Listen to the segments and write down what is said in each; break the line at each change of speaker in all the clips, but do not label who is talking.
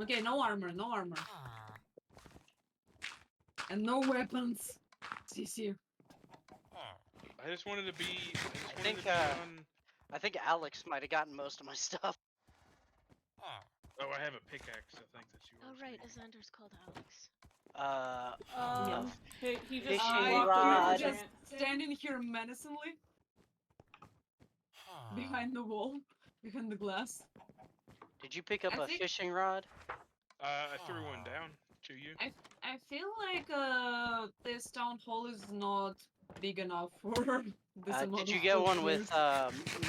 Okay, no armor, no armor. And no weapons. CC.
I just wanted to be. I, just wanted
think,
to be
uh,
on-
I think Alex might have gotten most of my stuff.
Oh, I have a pickaxe. I think that's yours.
Oh right,
maybe.
Azander's called Alex.
Uh,
Um,
Yeah.
he, he just
Fishing
walked
I
in
rod.
am
and
God.
just
ran-
standing here menacingly
Ah.
behind the wall, behind the glass.
did you pick up
I
a
think-
fishing rod?
Uh, I threw one down to you.
I feel like uh, this town hall is not big enough for this
Uh,
amount
did you
of
get one with
soldiers.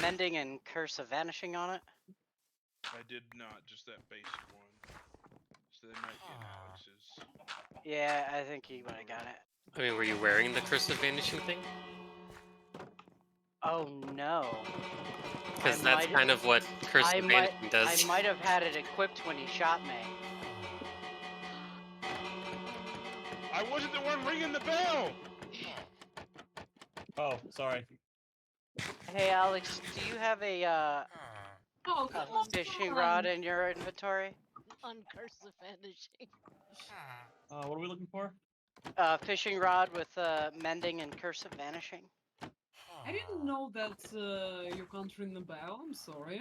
uh, mending and curse of vanishing on it?
I did not. Just that basic one. So they might get Alex's.
Yeah, I think he might have got it.
I mean, were you wearing the Curse of Vanishing thing?
Oh no.
Because
I
that's
might-
kind of what Curse
I
of
might-
Vanishing
I
does.
might have had it equipped when he shot me.
I wasn't the one ringing the bell.
Oh, sorry.
Hey Alex, do you have a uh,
Oh,
a
come
fishing
on.
rod in your inventory?
On Curse of Vanishing.
Uh, what are we looking for?
A fishing rod with uh, mending and curse of vanishing?
I didn't know that uh, you can't ring the bell. I'm sorry.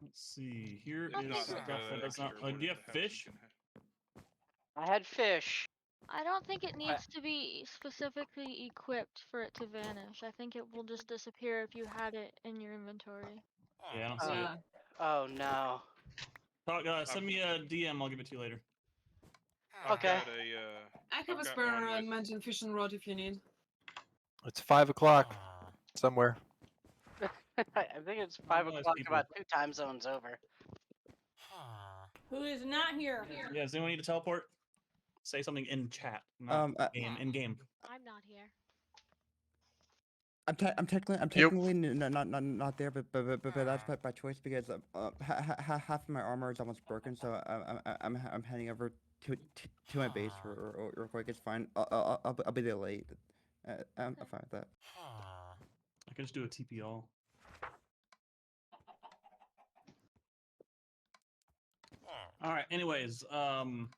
Let's see. Here
If
is
not,
stuff
uh,
that does
extra
not. Uh,
one
do you
in
have
the house
fish?
can have.
I had fish.
I don't think it needs to be specifically equipped for it to vanish. I think it will just disappear if you had it in your inventory.
Yeah, I don't see it.
Yeah.
Oh no.
Talk, uh, send me a DM. I'll give it to you later.
I've
Okay.
got a, uh,
I have
I've
a
got
spare
one
uh,
with-
mentioned fishing rod if you need.
It's five o'clock somewhere.
I I think it's five
nice
o'clock,
people.
about two time zones over.
Who is not here?
Yeah, does anyone need to teleport? Say something in chat. Not
Um, I,
game. In game.
I'm not here.
I'm, te- I'm technically, I'm technically n- n- not, not, not there, but, but, but, but, but that's by, by choice because uh, uh, ha- ha- ha- half of my armor is almost broken, so I'm, I'm, I'm, I'm heading over to, to, to my base real, real- real quick. It's fine. I'll, I'll, I'll, be- I'll be there late. Uh, I'm I'm fine with that.
I can just do a TP all. All right. Anyways, um,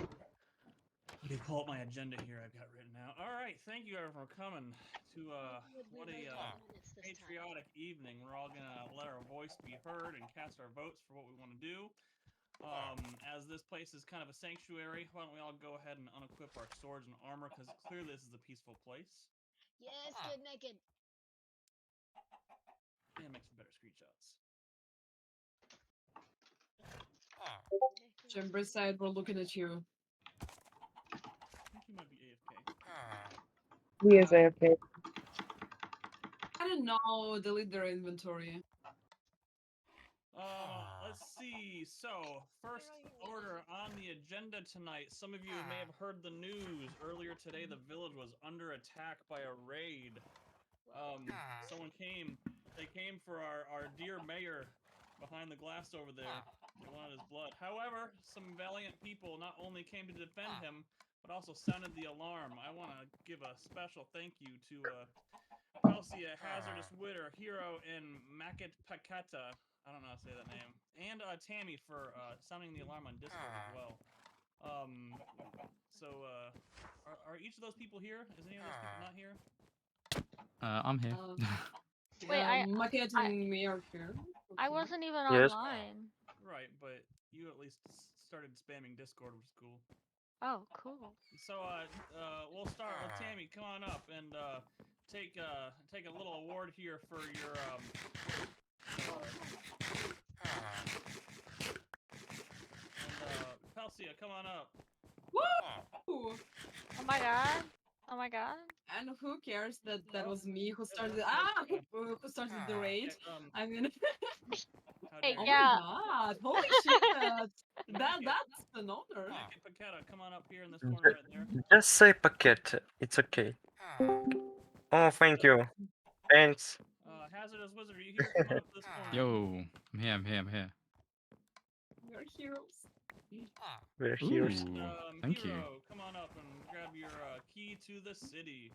let me pull up my agenda here. I've got written out. All right. Thank you everyone for coming to uh, what a uh, patriotic evening. We're all gonna let our voice be heard and cast our votes for what we want to do. Um, as this place is kind of a sanctuary, why don't we all go ahead and unequip our swords and armor? Because clearly this is a peaceful place.
Yes,
get
naked.
And make some better screenshots.
Chamber side, we're looking at you.
I think you might be AFK.
He is AFK.
I don't know. Delete their inventory.
Uh, let's see. So, first
are you at?
order on the agenda tonight. Some of you may have heard the news earlier today. The village was under attack by a raid. Um, someone came. They came for our, our dear mayor behind the glass over there. They wanted his blood. However, some valiant people not only came to defend him, but also sounded the alarm. I want to give a special thank you to uh, Kelsey, a hazardous widow, hero, and Makat Pakata. I don't know how to say that name. And uh, Tammy for uh, sounding the alarm on Discord as well. Um, so uh, are, are each of those people here? Is any of those people not here?
Uh, I'm here.
Uh,
Wait,
yeah,
I-
Maquette
I-
and me are here.
I
Okay.
wasn't even
Yes.
online.
Right, but you at least s- started spamming Discord, which is cool.
Oh, cool.
So uh, uh, we'll start with Tammy. Come on up and uh, take uh, take a little award here for your um, and, uh, Pelsia. Come on up.
Woo!
Oh my god. Oh my god.
And who cares that that
Well,
was me who started?
that's
Ah,
okay.
who, uh, who started the raid?
Yeah, um,
I mean,
how
Hey,
dare
oh
Ah.
you.
yeah.
my god! Holy shit! that that's an honor.
Nick and Paquetta, come on up here in this corner right there.
Just say paquette. It's okay. Oh, thank you. Thanks.
Uh, Hazardous Wizard, are you here? Come on up this corner.
Yo, I'm here. I'm here. I'm here.
We're heroes.
We're
Ooh,
here.
Um,
thank you.
hero, Come on up and grab your uh, key uh, to the city.